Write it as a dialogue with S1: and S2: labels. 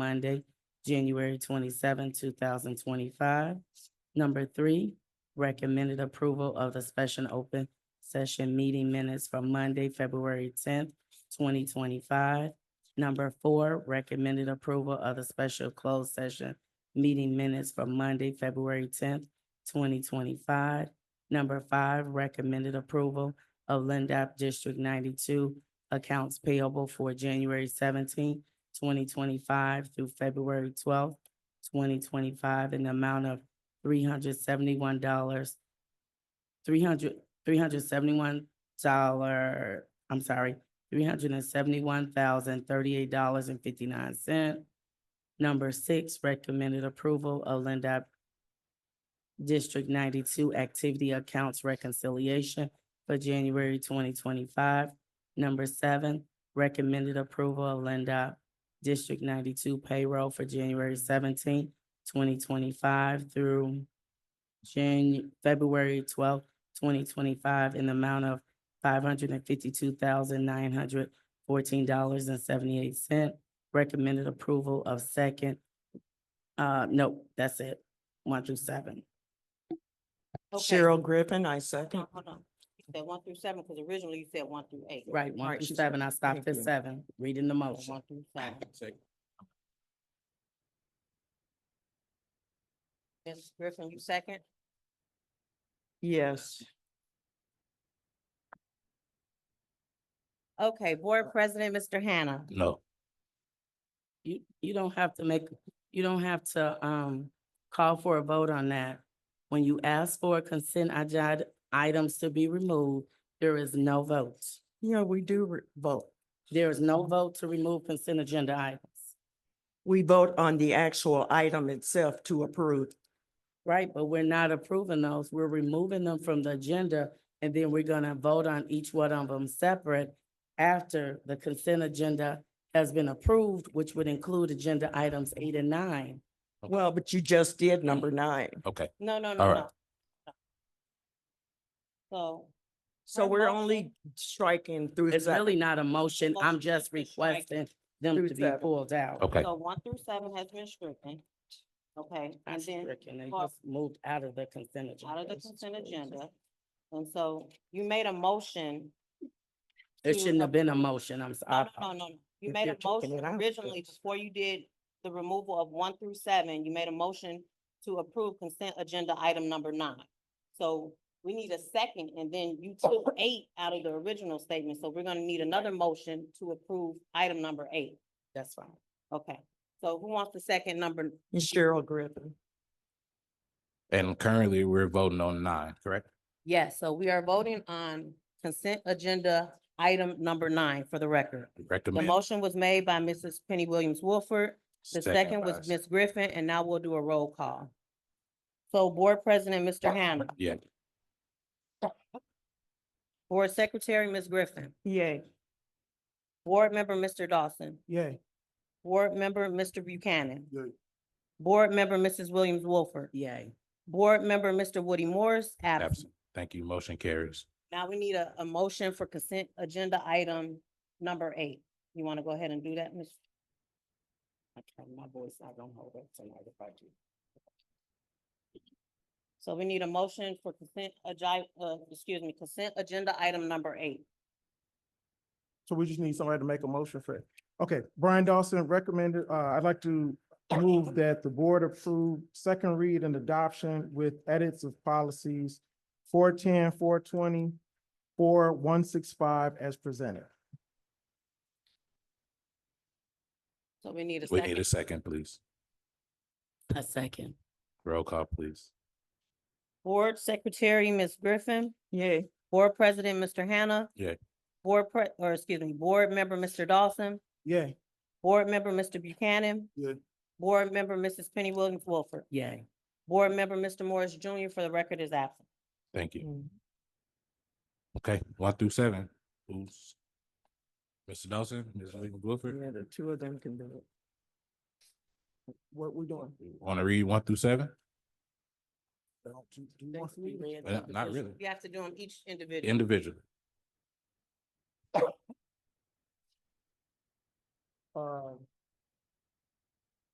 S1: Monday, January 27, thousand twenty-five. Number three, recommended approval of the special open session meeting minutes for Monday, February tenth, twenty twenty-five. Number four, recommended approval of the special closed session meeting minutes for Monday, February tenth, twenty twenty-five. Number five, recommended approval of Lindop District ninety-two accounts payable for January seventeenth, twenty twenty-five through February twelfth, twenty twenty-five in the amount of three hundred seventy-one dollars, three hundred, three hundred seventy-one dollar, I'm sorry, three hundred and seventy-one thousand thirty-eight dollars and fifty-nine cent. Number six, recommended approval of Lindop District ninety-two activity accounts reconciliation for January twenty twenty-five. Number seven, recommended approval of Lindop District ninety-two payroll for January seventeenth, twenty twenty-five through Janu- February twelfth, twenty twenty-five in the amount of five hundred and fifty-two thousand nine hundred fourteen dollars and seventy-eight cent. Recommended approval of second. Uh, no, that's it, one through seven.
S2: Okay,
S3: Cheryl Griffin, I second.
S2: Hold hold on. You said one through seven, because originally you said one through eight.
S1: Right,
S2: All
S1: one through
S2: she said
S1: seven, I stopped
S3: Thank
S1: at
S3: you.
S1: seven, reading the motion.
S2: One through seven. Ms. Griffin, you second?
S3: Yes,
S2: Okay, Board President, Mr. Hannah.
S4: No.
S1: You, you don't have to make, you don't have to, um, call for a vote on that. When you ask for a consent agenda items to be removed, there is no vote.
S3: yeah, we do re- vote.
S1: There is no vote to remove consent agenda items,
S3: We vote on the actual item itself to approve.
S1: right? But we're not approving those. We're removing them from the agenda, and then we're gonna vote on each one of them separate after the consent agenda has been approved, which would include agenda items eight and nine.
S4: Okay.
S3: Well, but you just did number nine.
S4: Okay,
S2: No, no,
S4: All
S2: no,
S4: right.
S2: no. So,
S3: So
S2: Her
S3: we're
S2: motion-
S3: only striking through.
S1: It's
S3: se-
S1: really not a motion. I'm
S2: Motion
S1: just
S2: to strike.
S1: requesting them
S3: Through
S1: to be
S3: seven.
S1: pulled out.
S4: okay.
S2: so one through seven has been stricken. Okay,
S1: Not
S2: and then
S1: stricken, they
S2: well,
S1: just moved out of the consent agenda.
S2: out of the consent agenda. And so you made a motion
S1: It
S2: to
S1: shouldn't have been a motion, I'm
S2: No,
S1: sorry.
S2: no, no, no, no. You
S3: If
S2: made
S3: you're
S2: a
S3: taking
S2: motion
S3: it out,
S2: originally before you did the removal of one through seven, you made a motion to approve consent agenda item number nine. So we need a second and then you took eight out of the original statement, so we're gonna need another motion to approve item number eight.
S1: That's fine.
S2: Okay, so who wants the second number?
S3: Cheryl Griffin.
S4: And currently, we're voting on nine, correct?
S2: Yes, so we are voting on consent agenda item number nine for the record. The
S4: Recommend.
S2: motion was made by Mrs. Penny Williams Wolford. The second was
S4: by-
S2: Ms. Griffin, and now we'll do a roll call. So Board President, Mr. Hannah,
S4: Yeah,
S2: Board Secretary, Ms. Griffin,
S3: Yay,
S2: Board Member, Mr. Dawson,
S3: yay.
S2: Board Member, Mr. Buchanan,
S3: Yay.
S2: Board Member, Mrs. Williams Wolford,
S1: Yay.
S2: Board Member, Mr. Woody Morris, absent.
S4: absent. Thank you. Motion carries.
S2: Now we need a, a motion for consent agenda item number eight. You want to go ahead and do that, Ms.?
S1: Okay, my voice, I don't hold it tonight if I do.
S2: So we need a motion for consent agi- uh, excuse me, consent agenda item number eight.
S5: So we just need somebody to make a motion for it. Okay, Brian Dawson recommended, uh, I'd like to move that the board approve second read and adoption with edits of policies 410, 420, 4165 as presented.
S2: So we need a
S4: We need
S2: second.
S4: a second, please.
S1: A second.
S4: Roll call, please.
S2: Board Secretary, Ms. Griffin,
S3: Yay,
S2: Board President, Mr. Hannah.
S4: Yay.
S2: Board Pre, or excuse me, Board Member, Mr. Dawson,
S5: Yeah.
S2: Board Member, Mr. Buchanan.
S5: Yeah.
S2: Board Member, Mrs. Penny Williams Wilford,
S1: Yay.
S2: Board Member, Mr. Morris Junior, for the record is absent.
S4: Thank you.
S3: Mm.
S2: Mm.
S4: Okay, one through seven. Who's? Mr. Dawson, Ms. Williams Wilford,
S3: yeah, the two of them can do it. What we doing?
S4: want to read one through seven? Well,
S1: Not
S4: Not really.
S2: You have to do them each individually.
S4: Individually.
S5: Uh,